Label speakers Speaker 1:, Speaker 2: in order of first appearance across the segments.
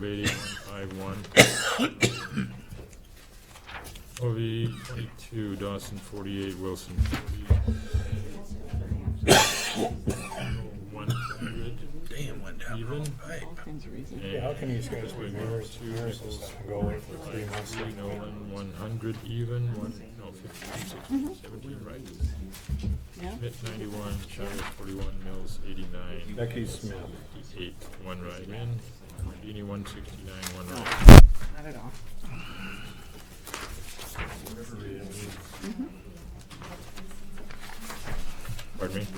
Speaker 1: Beatty, I one. OV twenty-two, Dawson forty-eight, Wilson forty. One hundred,
Speaker 2: Damn, went down
Speaker 1: Even?
Speaker 2: the pipe.
Speaker 3: Yeah, how can these guys be
Speaker 1: Wait,
Speaker 3: mirrors,
Speaker 1: two
Speaker 3: mirrors and
Speaker 1: equals
Speaker 3: stuff and go away for three
Speaker 1: Like
Speaker 3: months?
Speaker 1: three, Nolan, one hundred even, one, no, fifteen, sixteen, seventeen, right.
Speaker 4: Yeah.
Speaker 1: Schmidt ninety-one, Chavez forty-one, Mills eighty-nine.
Speaker 3: Becky Smith.
Speaker 1: Eight, one right in, Dini one sixty-nine, one
Speaker 4: No,
Speaker 1: right.
Speaker 4: Not at all. Mm-hmm.
Speaker 1: Pardon me?
Speaker 5: I'm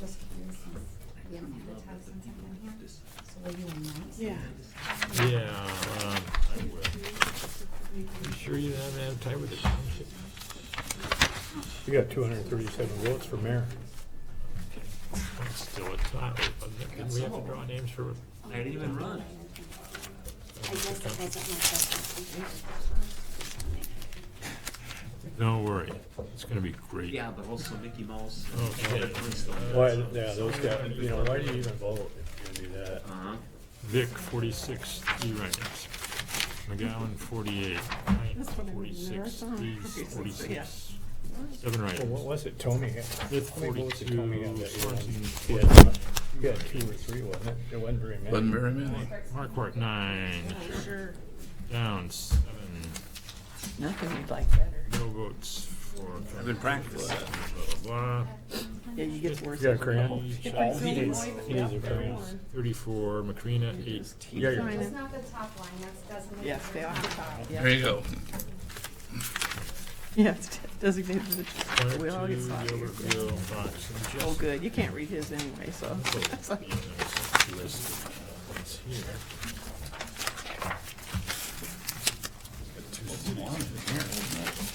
Speaker 5: just curious, since we haven't had a tag since I've been here, so will you announce?
Speaker 4: Yeah.
Speaker 1: Yeah, um, I will. You sure you didn't have enough time with the township?
Speaker 3: You got two hundred and thirty-seven votes for mayor.
Speaker 1: It's Still a tie, wasn't it? Didn't we have to draw names for?
Speaker 2: I didn't even run.
Speaker 5: I guess that wasn't my question.
Speaker 1: No worry, it's gonna be great.
Speaker 2: Yeah, but also Mickey Mouse.
Speaker 1: Okay.
Speaker 3: Why, yeah, those guys, you know, why do you even vote if you're gonna do that?
Speaker 2: Uh-huh.
Speaker 1: Vic, forty-six, E write-ins. McGowan, forty-eight, Knight,
Speaker 4: That's what I would never
Speaker 1: forty-six,
Speaker 4: thought.
Speaker 1: Reeves,
Speaker 2: Yeah.
Speaker 1: forty-six. Seven
Speaker 3: Well, what
Speaker 1: write-ins.
Speaker 3: was it, Tony?
Speaker 1: Smith,
Speaker 3: How many votes did
Speaker 1: forty-two,
Speaker 3: Tony get that year?
Speaker 1: Sorensen,
Speaker 3: He had- He had two or three, wasn't it? It wasn't very many.
Speaker 2: Wasn't very many.
Speaker 1: Markwart, nine,
Speaker 4: Sure.
Speaker 1: down, seven.
Speaker 4: Nothing you'd like better.
Speaker 1: No votes for.
Speaker 2: I've been practicing.
Speaker 1: Blah, blah,
Speaker 4: Yeah, you get worse.
Speaker 3: You got a
Speaker 4: as
Speaker 1: blah.
Speaker 3: crayon?
Speaker 1: Each,
Speaker 3: He needs, he needs a crayon.
Speaker 1: Thirty-four, Macrina, eighteen.
Speaker 3: Yeah,
Speaker 4: Fine.
Speaker 3: yeah.
Speaker 5: It's not the top line, that's designated.
Speaker 4: Yeah, stay off the top,
Speaker 2: There
Speaker 4: yeah.
Speaker 2: you go.
Speaker 4: Yeah, it's designated for
Speaker 1: Clark,
Speaker 4: the,
Speaker 1: two,
Speaker 4: we all get sloppy.
Speaker 1: Gilbertville, Fox, and Jessup.
Speaker 4: Oh, good, you can't read his anyway, so.
Speaker 1: So,
Speaker 4: It's like-
Speaker 1: you know, it's listed, uh, it's here.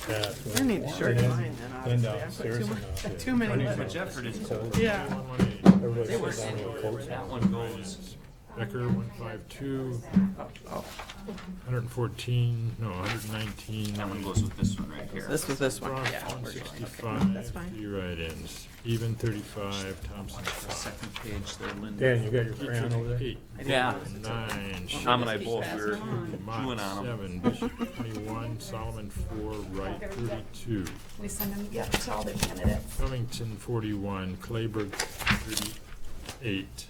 Speaker 3: Yeah,
Speaker 4: I need to shorten mine then,
Speaker 3: Then
Speaker 4: obviously. I put
Speaker 3: downstairs
Speaker 4: too
Speaker 3: and
Speaker 4: much,
Speaker 3: out
Speaker 4: too many.
Speaker 3: there.
Speaker 2: But Jefford is
Speaker 3: Cold.
Speaker 4: Yeah.
Speaker 1: One, one, eight.
Speaker 3: Everybody
Speaker 2: We're
Speaker 3: sits down
Speaker 2: saying
Speaker 3: with
Speaker 2: where
Speaker 3: coats
Speaker 2: that
Speaker 3: on.
Speaker 2: one goes.
Speaker 1: Becker, one five two,
Speaker 4: Oh,
Speaker 1: hundred and fourteen, no, hundred and nineteen.
Speaker 2: That one goes with this one right here.
Speaker 4: This was this one,
Speaker 1: Brock,
Speaker 4: yeah.
Speaker 1: one
Speaker 4: we're going, okay, That's
Speaker 1: sixty-five,
Speaker 4: fine.
Speaker 1: three write-ins, even thirty-five, Thompson.
Speaker 2: The second page there, Linda.
Speaker 3: Dan, you got your crayon over
Speaker 1: Dietrich,
Speaker 3: there?
Speaker 1: eight.
Speaker 2: Yeah.
Speaker 1: Nine.
Speaker 2: Tom and I both, we were chewing
Speaker 1: Mott,
Speaker 2: on them.
Speaker 1: seven, Bishop, twenty-one, Solomon, four, Wright, thirty-two.
Speaker 5: We send them, yeah, to all the candidates.
Speaker 1: Covington, forty-one, Clayburg, thirty-eight,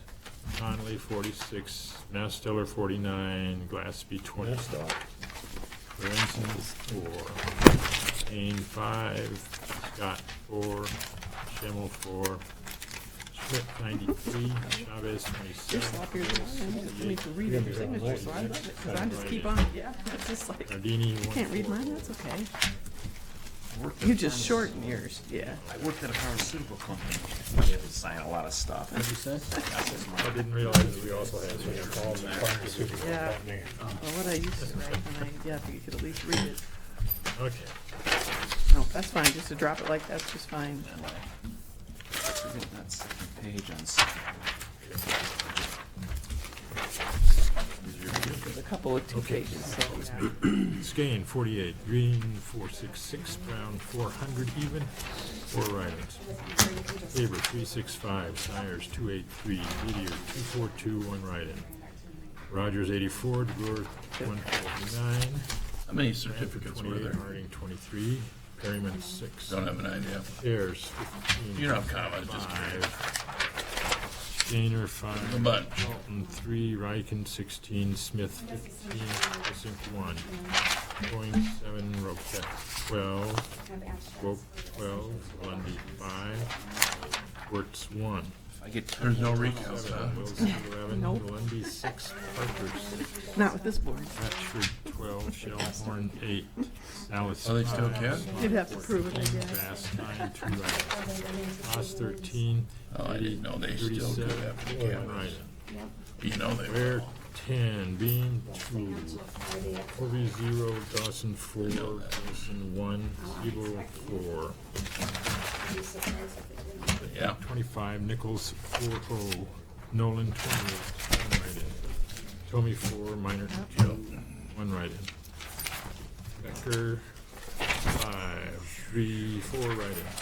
Speaker 1: Conley, forty-six, Masteller, forty-nine, Glassby, twenty.
Speaker 3: That's all.
Speaker 1: Lorenzen, four, Kane, five, Scott, four, Schimmel, four, Schmidt, ninety-three, Chavez,
Speaker 4: You're
Speaker 1: twenty-seven,
Speaker 4: sloppier than I am, 'cause I need to read
Speaker 3: You're
Speaker 4: your
Speaker 3: gonna be
Speaker 4: signature,
Speaker 3: wrong
Speaker 4: so I
Speaker 3: later.
Speaker 4: love it, because I just keep on, yeah, it's just like,
Speaker 1: Nardini, one.
Speaker 4: can't read
Speaker 1: four.
Speaker 4: mine, that's okay.
Speaker 2: Worked at
Speaker 4: You
Speaker 2: a
Speaker 4: just
Speaker 2: pharmacy-
Speaker 4: shorten yours, yeah.
Speaker 2: I worked at a pharmaceutical company. We had to sign a lot of stuff. What'd you say?
Speaker 1: I didn't realize we also had.
Speaker 3: That's what you call the pharmaceutical
Speaker 4: Yeah.
Speaker 3: company.
Speaker 4: Well, what I used to write, when I, yeah, but you could at least read it.
Speaker 1: Okay.
Speaker 4: No, that's fine, just to drop it like that's just fine.
Speaker 2: Forget that second page on. s-
Speaker 4: There's a couple with two
Speaker 1: Okay.
Speaker 4: pages, so.
Speaker 1: Skane, forty-eight, Green, four six six, Brown, four hundred even, four write-ins. Faber, three six five, Sires, two eight three, Meteor, two four two, one write-in. Rogers, eighty-four, DeGore, one forty-nine,
Speaker 6: How many
Speaker 1: Bradford,
Speaker 6: certificates were
Speaker 1: twenty-eight,
Speaker 6: there?
Speaker 1: Harding, twenty-three, Perryman, six.
Speaker 6: Don't have an idea.
Speaker 1: Ayers, fifteen.
Speaker 6: You don't have commas, just curious.
Speaker 1: five. Gainer,
Speaker 6: A
Speaker 1: five.
Speaker 6: bunch.
Speaker 1: Dalton, three, Riken, sixteen, Smith, fifteen, Missing one. Going seven, Roquette, twelve,
Speaker 5: Have abstract.
Speaker 1: Woke, twelve, Lundy, five, Wertz, one.
Speaker 2: I get.
Speaker 6: There's no recalls, huh?
Speaker 1: Seven, Wilson, eleven,
Speaker 4: Nope.
Speaker 1: Lundy, six, Parker, six,
Speaker 4: Not with this board.
Speaker 1: Hatchford, twelve, Shellhorn, eight, Salas.
Speaker 6: Are they still
Speaker 1: five,
Speaker 6: kids?
Speaker 4: You'd have to prove it, I guess.
Speaker 1: Bass, nine, two, right. Haas, thirteen,
Speaker 6: Oh, I
Speaker 1: Eddie,
Speaker 6: didn't know they still could
Speaker 1: thirty-seven,
Speaker 6: have
Speaker 1: one
Speaker 6: cameras.
Speaker 1: right.
Speaker 6: You know they
Speaker 1: Ware,
Speaker 6: will.
Speaker 1: ten, Bean, two, Corby, zero, Dawson, four, Wilson, one, Siebel, four,
Speaker 6: Yeah.
Speaker 1: twenty-five, Nichols, four, oh, Nolan, twenty-eight, one write-in, Tommy, four, Minor, two, one write-in, Becker, five, three, four write-ins.